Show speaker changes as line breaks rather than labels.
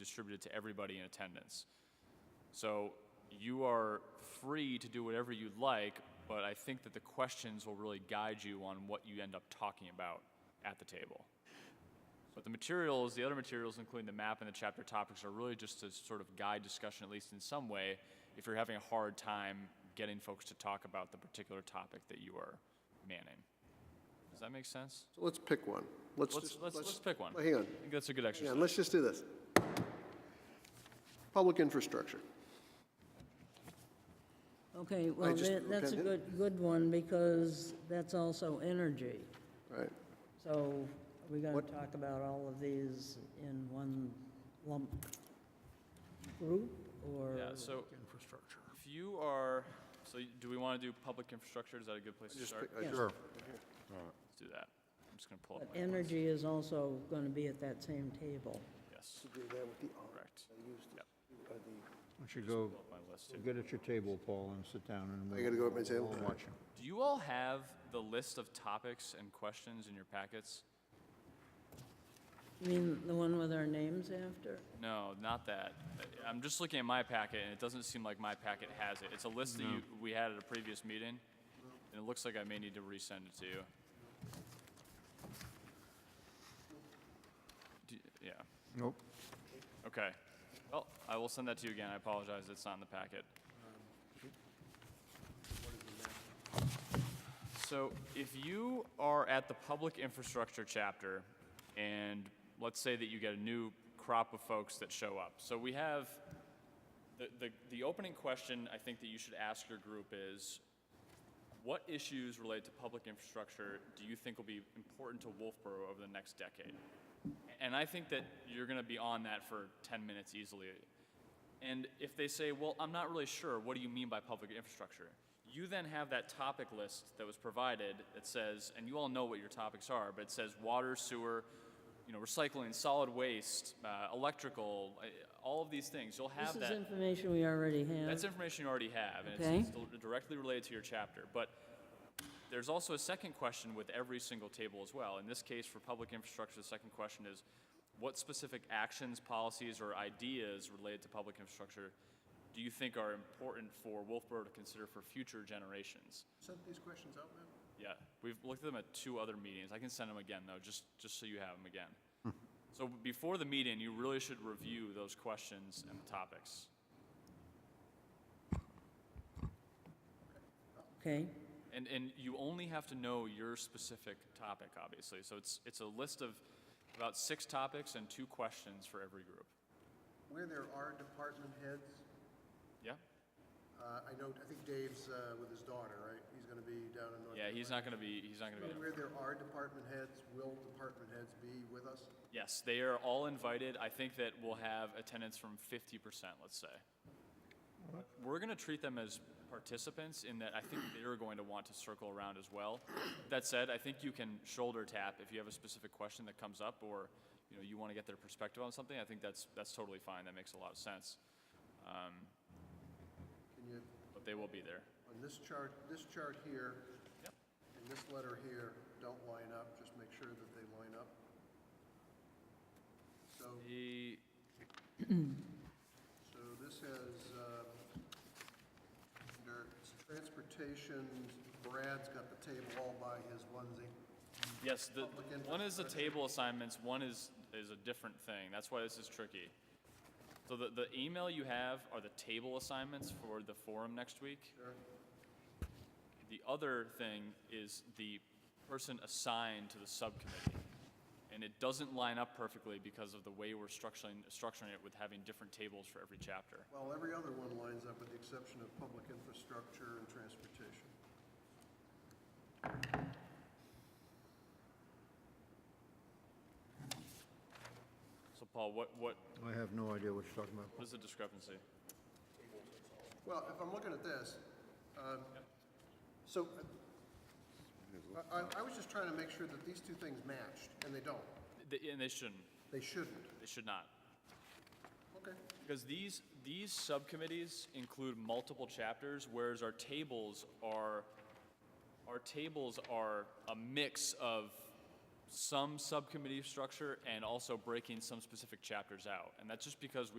distributed to everybody in attendance. So you are free to do whatever you'd like, but I think that the questions will really guide you on what you end up talking about at the table. But the materials, the other materials, including the map and the chapter topics, are really just to sort of guide discussion, at least in some way, if you're having a hard time getting folks to talk about the particular topic that you are manning. Does that make sense?
So Let's pick one. Let's
Let's,
just-
let's, let's pick one.
Hang on,
I think that's a good
hang on,
exercise.
let's just do this. Public infrastructure.
Okay, well,
just-
that- that's a
okay.
good, good one, because that's also energy.
Right.
So are we going
What-
to talk about all of these in one lump group, or?
Yeah, so. Infrastructure. If you are, so y- do we want to do public infrastructure? Is that a good place to
Just
start?
pick- I just-
Sure.
Let's do that. I'm just going to pull
But
up my,
energy is also going to be at that same table.
yes,
Do that with the R,
correct. Yep,
uh, the-
Why don't you go,
pull up my list too.
get at your table, Paul, and sit down and.
I gotta go at my table?
we'll watch 'em.
Do you all have the list of topics and questions in your packets?
You mean the one with our names after?
No, not that. I- I'm just looking at my packet, and it doesn't seem like my packet has it. It's a list that you, we had at a previous meeting, and it looks like I may need to resend it to you. Do- Yeah,
Nope.
okay. Well, I will send that to you again. I apologize, it's not in the packet. So if you are at the public infrastructure chapter, and let's say that you get a new crop of folks that show up. So we have, the, the, the opening question I think that you should ask your group is, what issues related to public infrastructure do you think will be important to Wolfboro over the next decade? And I think that you're gonna be on that for ten minutes easily. And if they say, well, I'm not really sure, what do you mean by public infrastructure? You then have that topic list that was provided that says, and you all know what your topics are, but it says water, sewer, you know, recycling, solid waste, uh, electrical, uh, all of these things. You'll have
This
that.
is information we already have.
That's information you already have, and
Okay.
it's, it's di- directly related to your chapter. But there's also a second question with every single table as well. In this case, for public infrastructure, the second question is what specific actions, policies, or ideas related to public infrastructure do you think are important for Wolfboro to consider for future generations?
Sent these questions out, man?
Yeah, we've looked at them at two other meetings. I can send them again though, just just so you have them again. so before the meeting, you really should review those questions and topics.
Okay,
And, and you only have to know your specific topic, obviously. So it's, it's a list of about six topics and two questions for every group.
Where there are department heads,
Yeah?
uh, I know, I think Dave's uh, with his daughter, right? He's going to be down in North.
Yeah, he's not going to be, he's not going to be.
Where there are department heads, will department heads be with us?
Yes, they are all invited. I think that we'll have attendance from 50%, let's say. We're going to treat them as participants in that I think they're going to want to circle around as well. That said, I think you can shoulder tap if you have a specific question that comes up or, you know, you want to get their perspective on something. I think that's, that's totally fine. That makes a lot of sense. Um,
Can you,
but they will be there.
on this chart, this chart here,
Yep.
and this letter here, don't line up, just make sure that they line up. So,
The-
so this has, um, under transportation, Brad's got the table all by his onesie.
yes, the,
Public interest
one is the table assignments, one is, is a different thing. That's why this is tricky. So the, the email you have are the table assignments for the forum next week.
Sure.
The other thing is the person assigned to the subcommittee. And it doesn't line up perfectly because of the way we're structuring, structuring it with having different tables for every chapter.
Well, every other one lines up with the exception of public infrastructure and transportation.
So Paul, what, what,
I have no idea what you're talking about.
what is the discrepancy?
Well, if I'm looking at this, um, so uh, I, I- I was just trying to make sure that these two things matched, and they don't.
They- And they shouldn't,
They shouldn't.
they should not.
Okay.
Because these, these subcommittees include multiple chapters, whereas our tables are, our tables are a mix of some subcommittee structure and also breaking some specific chapters out. And that's just because we.